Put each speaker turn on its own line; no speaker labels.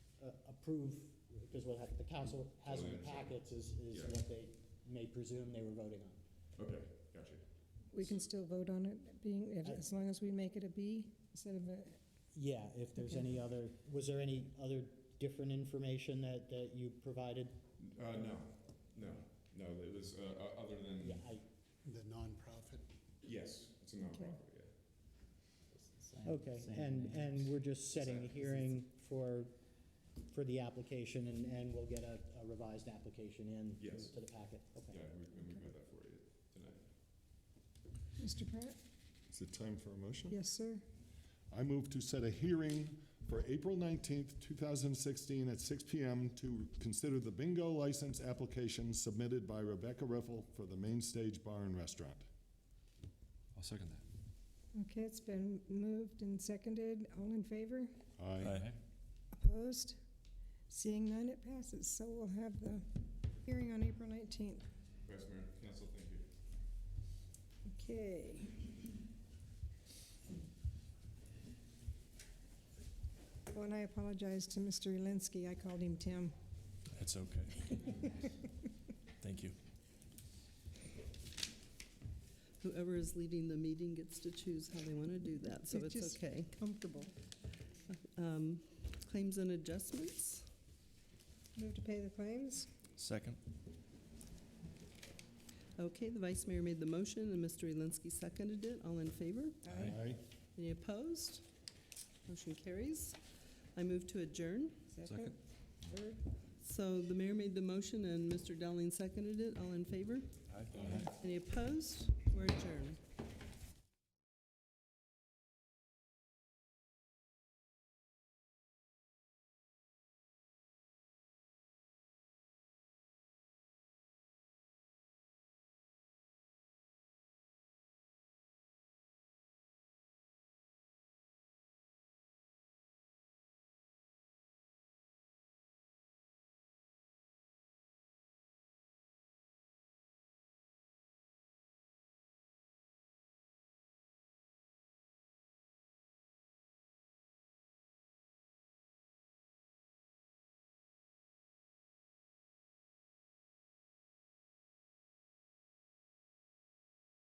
uh, approve, because what hap- the council has
Totally
in the
understand.
packets is, is
Oh, Yeah.
what they may presume they were voting on.
Okay, gotcha.
We can still vote on it being, if- as long as we make it a B instead of a,
Yeah, if there's
Okay.
any other, was there any other different information that, that you provided?
Uh, no, no, no, it was, uh, uh, other
Yeah,
than,
I,
The nonprofit,
yes, it's a nonprofit, yeah.
Same-
okay,
same
and,
names.
and we're just setting a
Same.
hearing for, for the application, and, and we'll get a a revised application in
Yes.
to the packet, okay.
Yeah, we, and we got that for you tonight.
Mr. Pratt?
Is it time for a motion?
Yes, sir.
I move to set a hearing for April 19th, 2016 at 6 PM to consider the bingo license application submitted by Rebecca Riffle for the Main Stage Bar and Restaurant.
I'll second that.
Okay, it's been moved and seconded. All in favor?
Aye.
Opposed? Seeing none, it passes. So we'll have the hearing on April 19th.
Vice Mayor, Council, thank you.
Okay. Well, and I apologize to Mr. Elinsky. I called him Tim.
That's okay. Thank you.
Whoever is leading the meeting gets to choose how they want to do that, so
It's
it's
just
okay.
Comfortable.
Um, Claims and adjustments?
Move to pay the claims?
Second?
Okay, the vice mayor made the motion, and Mr. Elinsky seconded it. All in favor?
Aye.
Any opposed? Motion carries. I move to adjourn.
Second.
Third?
So the mayor made the motion, and Mr. Dowling seconded it. All in favor?
Aye.
Any opposed? We're adjourned.